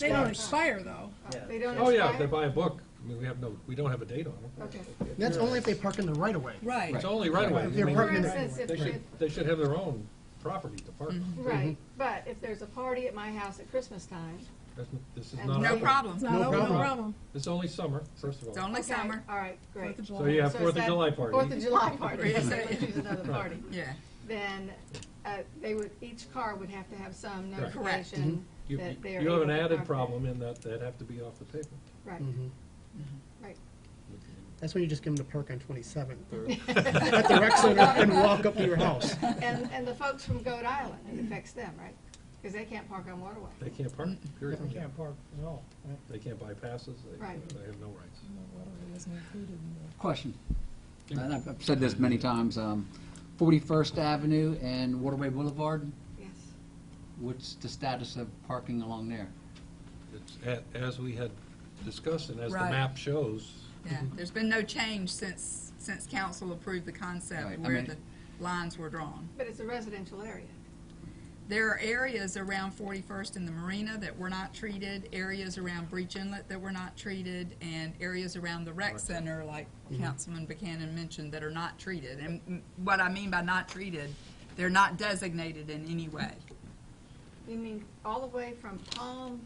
They don't expire, though. They don't Oh, yeah, if they expire? buy a book, I mean, we have no, we don't have a date on them. Okay. That's only if they park in the right of way. Right. It's only right away. If they're I mean, For parking in the instance, if, They should, Mm-hmm. if- they should have their own property to park on. right, but if there's a party at my house at Christmas time. That's n- This is And not, no open. problem. It's not open, no problem. problem. it's only summer, first of It's all. only Okay, summer, All right, great. Fourth of So July. you have So is Fourth of that July Fourth party. of July party, Yeah. so let's use another party. yeah. Then, uh, they would, each car would have to have some Correct. Correct. notification You that they are. Mm-hmm. you have an able to added park there. problem Mm-hmm. in that they'd have to be off the pavement. Right, Mhm. right. That's when you just give them to park on 27th or at the rec center and walk up to your house. And, and the folks from Goat Island, it affects them, right? Because they can't park on Waterway. They can't park, period. They can't park at all. They can't buy passes, they, Right. they have no rights. Question. And I've I've said this many times, um, 41st Avenue and Waterway Boulevard, Yes. what's the status of parking along there? It's, a- as we had discussed and as the Right. map shows, Yeah, there's been no change since, since council approved the Right, concept I where mean- the lines were drawn. But it's a residential area. There are areas around 41st and the Marina that were not treated, areas around Breach Inlet that were not treated, and areas around the rec center, like Councilman Buchanan mentioned, that are not treated. And mm, what I mean by not treated, they're not designated in any way. You mean all the way from Palm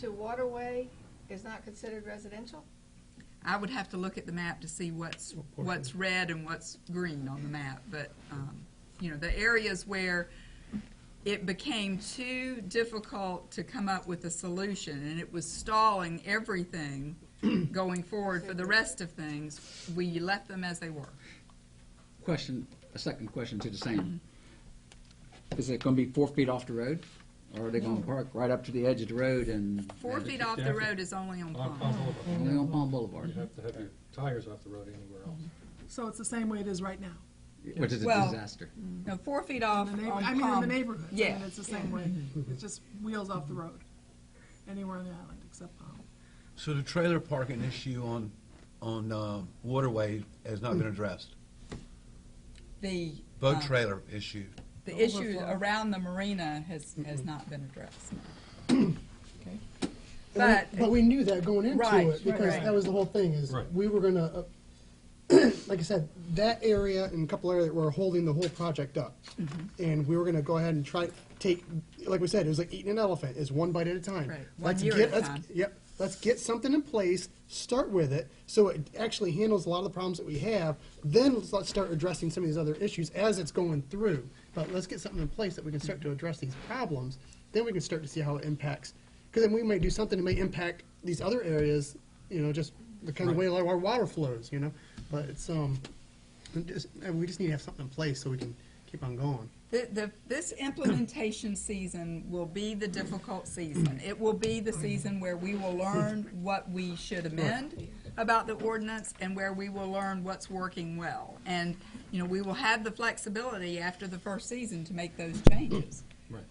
to Waterway is not considered residential? I would have to look at the map to see what's, what's red and what's green on the map, but, um, you know, the areas where it became too difficult to come up with a solution, and it was stalling everything going forward for the rest of things, we left them as they were. Question, a second question to the same. Is it going to be four feet off the road? Or are they going to park right up to the edge of the road and? Four feet off the road is only on on, Palm. on Boulevard, Only on Palm you Boulevard, have to have your tires off the road anywhere else. So it's the same way it is right now. which is a Well- disaster. No, four feet off In the on neigh- Palm. I mean, in the neighborhood. I mean, Yeah. It's the same way. It's just wheels off the road, anywhere on the island except Palm. So the trailer parking issue on, on uh, Waterway has not been addressed? The, Boat uh, trailer issue, the issue around the marina has, has not been addressed. But- But we knew that going into Right, it, because right. that was the whole thing, is Right. we were gonna, uh, like I said, that area and a couple areas were holding the whole project up. Mm-hmm. And we were gonna go ahead and try, take, like we said, it was like eating an elephant, is one bite at a time. Right, one Let's year get- at a let's- time. Yep, let's get something in place, start with it, so it actually handles a lot of the problems that we have, then let's let's start addressing some of these other issues as it's going through. But let's get something in place that we can start to address these problems, then we can start to see how it impacts. Because then we may do something that may impact these other areas, you know, just the kind of way our water flows, you know? But it's, um, it just- uh, we just need to have something in place so we can keep on going. The, the, this implementation season will be the difficult season. It will be the season where we will learn what we should amend about the ordinance and where we will learn what's working well. And, you know, we will have the flexibility after the first season to make those changes. Right.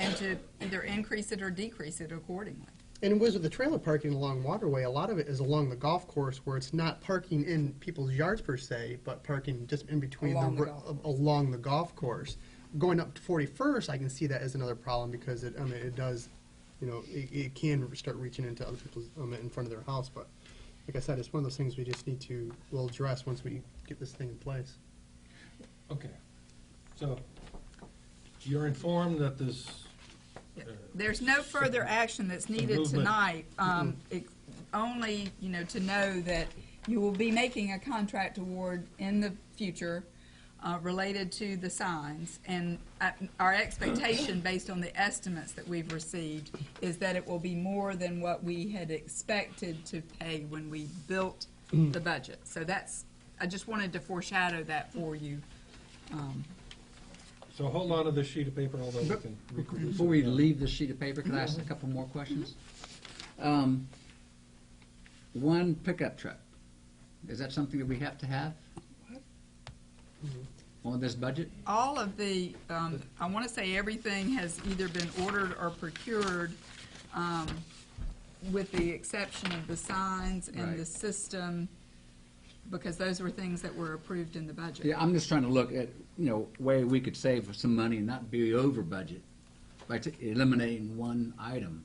And to either increase it or decrease it accordingly. And it was with the trailer parking along Waterway, a lot of it is along the golf course where it's not parking in people's yards per se, but parking just in between Along the ro- golf course. along the golf course. Going up to 41st, I can see that as another problem because it, I mean, it does, you know, it, it can start reaching into other people's, um, in front of their house. But like I said, it's one of those things we just need to, we'll address once we get this thing in place. Okay, so you're informed that this, There's no further action that's needed movement. tonight, um, ex- only, you know, to know that you will be making a contract award in the future uh, related to the signs. And uh, our expectation, based on the estimates that we've received, is that it will be more than what we had expected to pay when we built the budget. So that's, I just wanted to foreshadow that for you. so hold on to this sheet of paper, although we can. reproduce it. Before we leave this sheet of paper, can I ask a couple more questions? Um, One pickup truck, is that something that we have to have? On this budget? all of the, um, I want to say everything has either been ordered or procured, um, with the exception of the signs and the Right. system, because those were things that were approved in the budget. Yeah, I'm just trying to look at, you know, way we could save some money and not be over budget by t- eliminating one item.